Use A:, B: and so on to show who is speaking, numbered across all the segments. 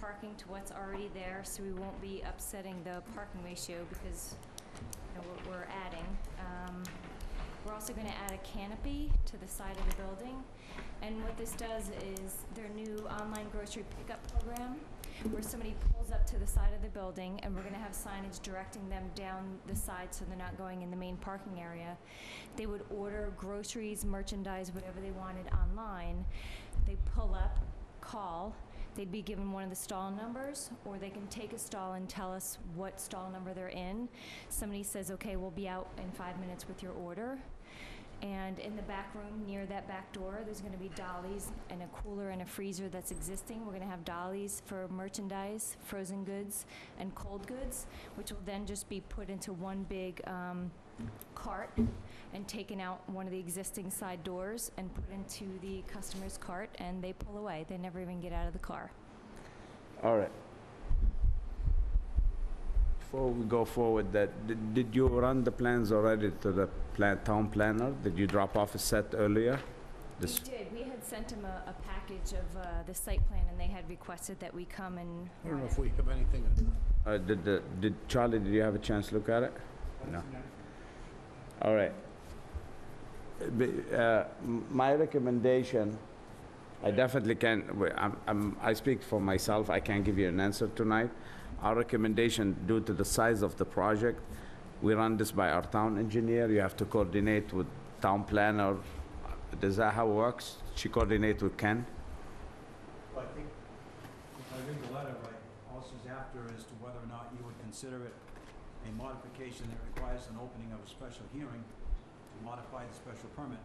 A: parking to what's already there, so we won't be upsetting the parking ratio because, you know, we're, we're adding. Um, We're also gonna add a canopy to the side of the building. And what this does is their new online grocery pickup program, where somebody pulls up to the side of the building, and we're gonna have signage directing them down the side so they're not going in the main parking area. They would order groceries, merchandise, whatever they wanted online. They pull up, call, they'd be given one of the stall numbers, or they can take a stall and tell us what stall number they're in. Somebody says, okay, we'll be out in five minutes with your order. And in the back room, near that back door, there's gonna be dollies and a cooler and a freezer that's existing. We're gonna have dollies for merchandise, frozen goods, and cold goods, which will then just be put into one big, um, cart and taken out one of the existing side doors and put into the customer's cart, and they pull away. They never even get out of the car.
B: All right. Before we go forward, that, did- did you run the plans already to the pla- town planner? Did you drop off a set earlier?
A: We
B: This-
A: did. We had sent them a, a package of uh, the site plan, and they had requested that we come and.
C: I don't know if we have anything.
B: uh, Did, the- did, Charlie, did you have a chance to look at it? No. All right. Uh, b- uh, m- My recommendation, I definitely can, w- I'm- I'm, I speak for myself, I can't give you an answer tonight. Our recommendation, due to the size of the project, we run this by our town engineer, you have to coordinate with town planner. Is that how it works? She coordinate with Ken?
D: Well, I think, if I read the letter right, all this is after as to whether or not you would consider it a modification that requires an opening of a special hearing to modify the special permit,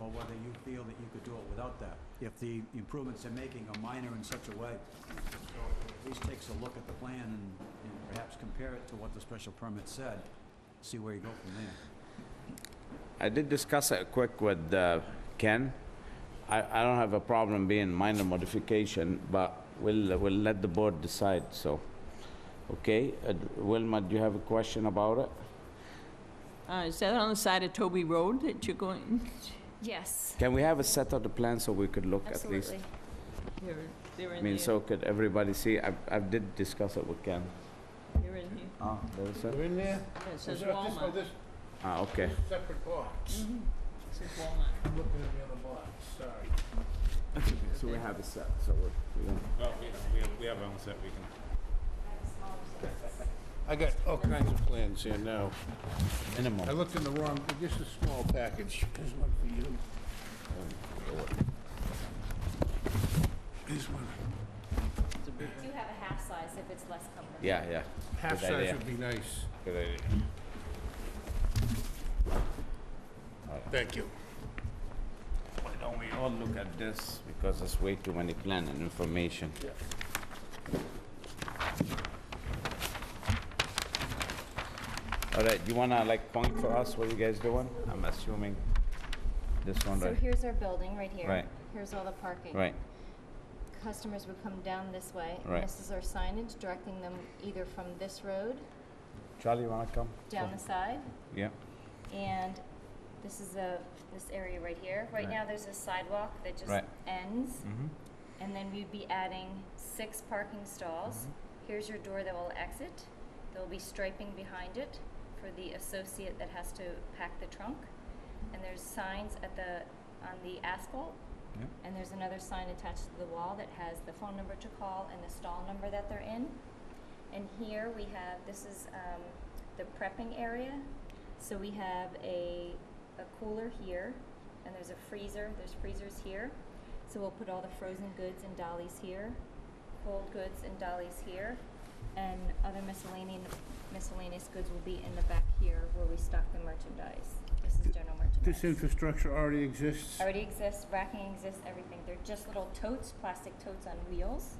D: or whether you feel that you could do it without that, if the improvements they're making are minor in such a way. So it at least takes a look at the plan and, and perhaps compare it to what the special permit said, see where you go from there.
B: I did discuss it quick with uh, Ken. I, I don't have a problem being minor modification, but we'll, we'll let the board decide, so. Okay, uh, Wilma, do you have a question about it?
E: Uh, Is that on the side of Toby Road that you're going?
A: Yes,
B: Can we have a set of the plan so we could look at least?
A: absolutely.
E: They're, they're
B: I
E: in
B: mean,
E: there.
B: so could everybody see? I, I did discuss it with Ken.
E: They're in here.
B: Oh, there is it?
C: We're in there?
E: Yeah, It says
C: Is there- this- oh,
E: Walmart.
C: This
B: Ah, okay.
C: this separate box.
E: Mhm. It says Walmart.
C: I'm looking at the other box, sorry.
B: So we have a set, so we're.
F: Well, we, we have, we have our own set, we can.
C: I got all kinds of plans here now. I
B: Minimum.
C: looked in the wrong, this is a small package. There's one for you. Here's one.
E: It's a big
A: Do you have a half size if it's less comfortable?
B: Yeah, yeah. Good
C: Half size
B: idea.
C: would be nice.
B: Good idea.
C: Thank you.
B: Why don't we all look at this? Because there's way too many plan and information. All right, you wanna like point for us what you guys doing? I'm assuming this one,
A: So
B: right?
A: here's our building, right here.
B: Right.
A: Here's all the parking.
B: Right,
A: Customers would come down this way. and
B: Right.
A: This is our signage directing them either from this road,
B: Charlie, you wanna come?
A: down the side,
B: Yeah,
A: and this is a, this area right here. Right
B: Right.
A: now, there's a sidewalk that just
B: Right.
A: ends.
B: mhm,
A: And then we'd be adding six parking stalls. Here's your door that will exit. There'll be striping behind it for the associate that has to pack the trunk. And there's signs at the, on the asphalt.
B: yeah.
A: And there's another sign attached to the wall that has the phone number to call and the stall number that they're in. And here we have, this is, um, the prepping area. So we have a, a cooler here, and there's a freezer, there's freezers here. So we'll put all the frozen goods and dollies here, cold goods and dollies here, and other miscellaneous, miscellaneous goods will be in the back here where we stock the merchandise. This is general merchandise.
C: This infrastructure already exists.
A: Already exists, racking exists, everything. They're just little totes, plastic totes on wheels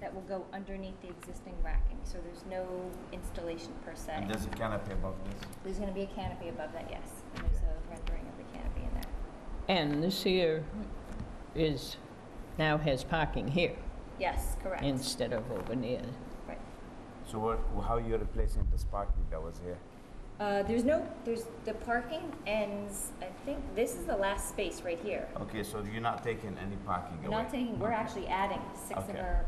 A: that will go underneath the existing racking, so there's no installation per se.
B: And there's a canopy above this.
A: There's gonna be a canopy above that, yes, and there's a rendering of the canopy in there.
E: And this here is, now has parking here
A: Yes, correct,
E: instead of over near.
A: right.
B: So what, how are you replacing this parking that was here?
A: Uh, there's no, there's, the parking ends, I think, this is the last space right here.
B: Okay, so you're not taking any parking
A: We're not taking, we're actually adding six of
B: Okay.
A: our